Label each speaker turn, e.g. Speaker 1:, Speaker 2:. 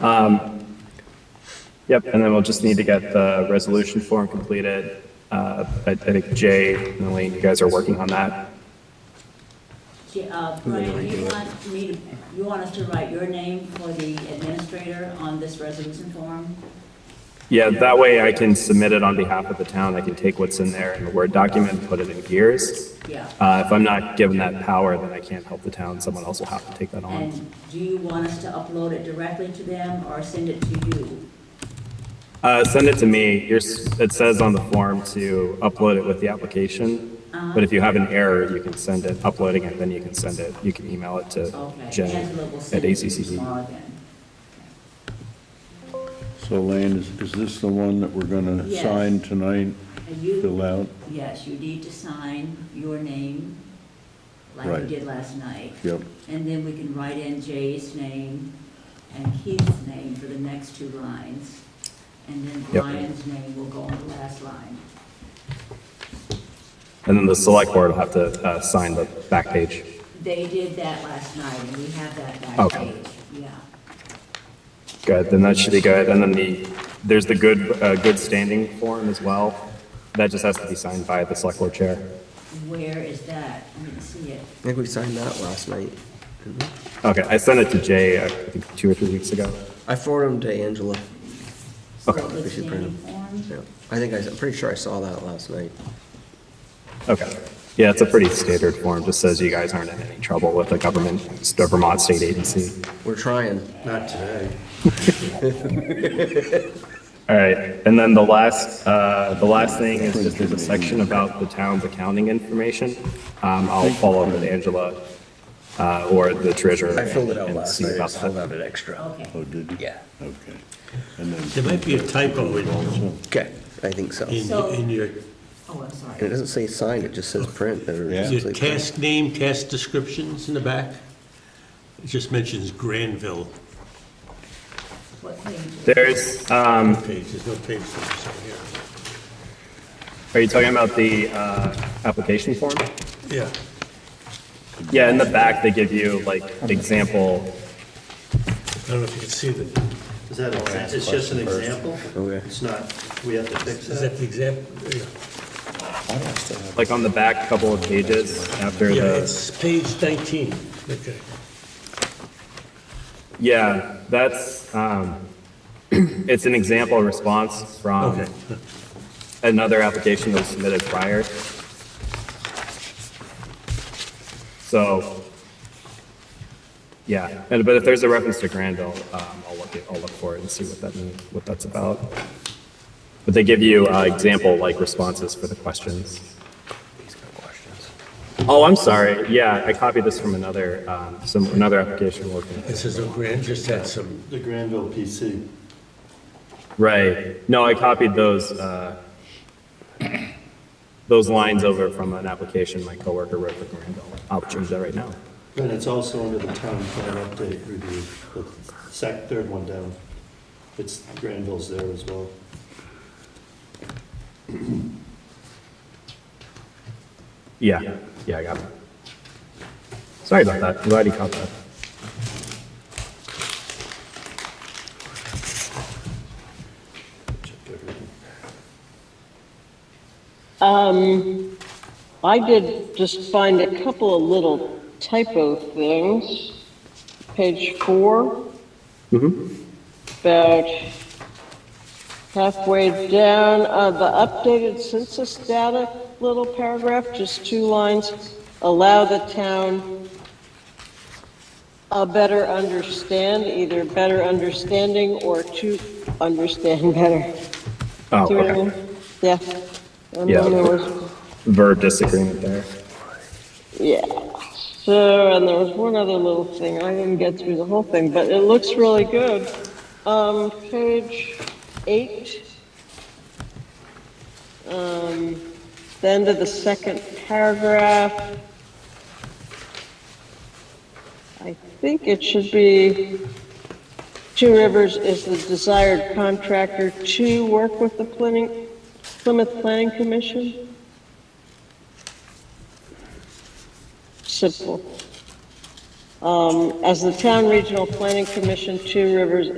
Speaker 1: Um, Yep, and then we'll just need to get the resolution form completed. Uh, I I think Jay and Elaine, you guys are working on that.
Speaker 2: J- uh, Brian, you want me to, you want us to write your name for the administrator on this resolution form?
Speaker 1: Yeah, that way I can submit it on behalf of the town. I can take what's in there in the Word document, and put it in gears.
Speaker 2: Yeah.
Speaker 1: Uh, If I'm not given that power, then I can't help the town. Someone else will have to take that on.
Speaker 2: And do you want us to upload it directly to them or send it to you?
Speaker 1: Uh, send it to me. You're, s- it says on the form to upload it with the application.
Speaker 2: Uh-huh.
Speaker 1: But if you have an error, you can send it, uploading it, then you can send it, you can email it to
Speaker 2: Okay,
Speaker 1: Jen
Speaker 2: Angela will
Speaker 1: at
Speaker 2: send it to you
Speaker 1: ACCD.
Speaker 2: tomorrow then.
Speaker 3: So Lane, is, is this the one that we're gonna
Speaker 2: Yes.
Speaker 3: sign tonight,
Speaker 2: And you,
Speaker 3: fill out?
Speaker 2: yes, you need to sign your name like you
Speaker 3: Right.
Speaker 2: did last night.
Speaker 3: Yep,
Speaker 2: And then we can write in Jay's name and Keith's name for the next two lines. And then
Speaker 1: Yep.
Speaker 2: Brian's name will go on the last line.
Speaker 1: And then the select board will have to, uh, sign the back page.
Speaker 2: They did that last night, and we have that back
Speaker 1: Okay.
Speaker 2: page, yeah.
Speaker 1: Good, then that should be good. And then the, there's the good, uh, good standing form as well. That just has to be signed by the select board chair.
Speaker 2: Where is that? I didn't see it.
Speaker 4: I think we signed that last night. didn't we?
Speaker 1: Okay, I sent it to Jay, uh, I think, two or three weeks ago.
Speaker 4: I forwarded them to Angela.
Speaker 2: So
Speaker 1: Okay,
Speaker 2: the
Speaker 4: we should print
Speaker 2: standing
Speaker 4: them.
Speaker 2: form?
Speaker 4: Yeah, I think I, am pretty sure I saw that last night.
Speaker 1: Okay. Yeah, it's a pretty standard form, just says you guys aren't in any trouble with the government, the Vermont state agency.
Speaker 4: We're trying.
Speaker 5: Not today.
Speaker 1: All right, and then the last, uh, the last thing is just there's a section about the town's accounting information. Um, I'll follow up with Angela, uh, or the treasurer.
Speaker 4: I filled it out
Speaker 1: and
Speaker 4: last
Speaker 1: see
Speaker 4: night. I
Speaker 1: about
Speaker 4: just filled
Speaker 1: that.
Speaker 4: out an extra.
Speaker 2: Okay,
Speaker 3: oh, did you?
Speaker 4: Yeah.
Speaker 3: Okay. And then,
Speaker 5: There might be a typo in,
Speaker 4: Okay, I think so. And
Speaker 5: in, in your,
Speaker 2: oh, I'm
Speaker 4: it
Speaker 2: sorry.
Speaker 4: doesn't say sign, it just says print. or it
Speaker 3: Yeah.
Speaker 4: just
Speaker 5: your
Speaker 4: says print.
Speaker 5: task name, task descriptions in the back. It just mentions Granville
Speaker 2: What page? is it?
Speaker 1: There's, um,
Speaker 5: page, there's no page number, so here.
Speaker 1: are you talking about the, uh, application form?
Speaker 5: Yeah,
Speaker 1: Yeah, in the back, they give you like example,
Speaker 5: I don't know if you can see the,
Speaker 6: Is that, it's just an example?
Speaker 4: Okay.
Speaker 6: It's not, we have to fix
Speaker 5: is
Speaker 6: that?
Speaker 5: that the example? Yeah.
Speaker 1: like on the back couple of pages after
Speaker 5: Yeah,
Speaker 1: the.
Speaker 5: it's page 19, okay.
Speaker 1: Yeah, that's, um, it's an example response from
Speaker 5: Okay.
Speaker 1: another application that was submitted prior. So, yeah, and, but if there's a reference to Granville, um, I'll look, it- I'll look for it and see what that, means- what that's about. But they give you, uh, example, like, responses for the questions. Oh, I'm sorry, yeah, I copied this from another, um, some, another application we're looking at.
Speaker 5: It says, oh, Gran just had some,
Speaker 6: The Granville PC.
Speaker 1: Right. No, I copied those, uh, those lines over from an application my coworker wrote for Granville. I'll change that right now.
Speaker 6: And it's also under the town plan update review, the sec, third one down. It's, Granville's there as well.
Speaker 1: Yeah, yeah, I got it. Sorry about that. I'm glad you caught that.
Speaker 7: Um, I did just find a couple of little typo things. Page 4
Speaker 1: Mm-hmm.
Speaker 7: About halfway down, uh, the updated census data, little paragraph, just two lines, allow the town a better understand, either better understanding or to understand better.
Speaker 1: Oh,
Speaker 7: Do you know what I
Speaker 1: okay.
Speaker 7: mean? Yeah. And
Speaker 1: Yeah.
Speaker 7: then there was,
Speaker 1: Verb disagreement there.
Speaker 7: yeah. So, and there was one other little thing. I didn't get through the whole thing, but it looks really good. Um, page eight. Um, the end of the second paragraph. I think it should be Two Rivers is the desired contractor to work with the planning, Plymouth Planning Commission. Simple. Um, as the town regional planning commission, Two Rivers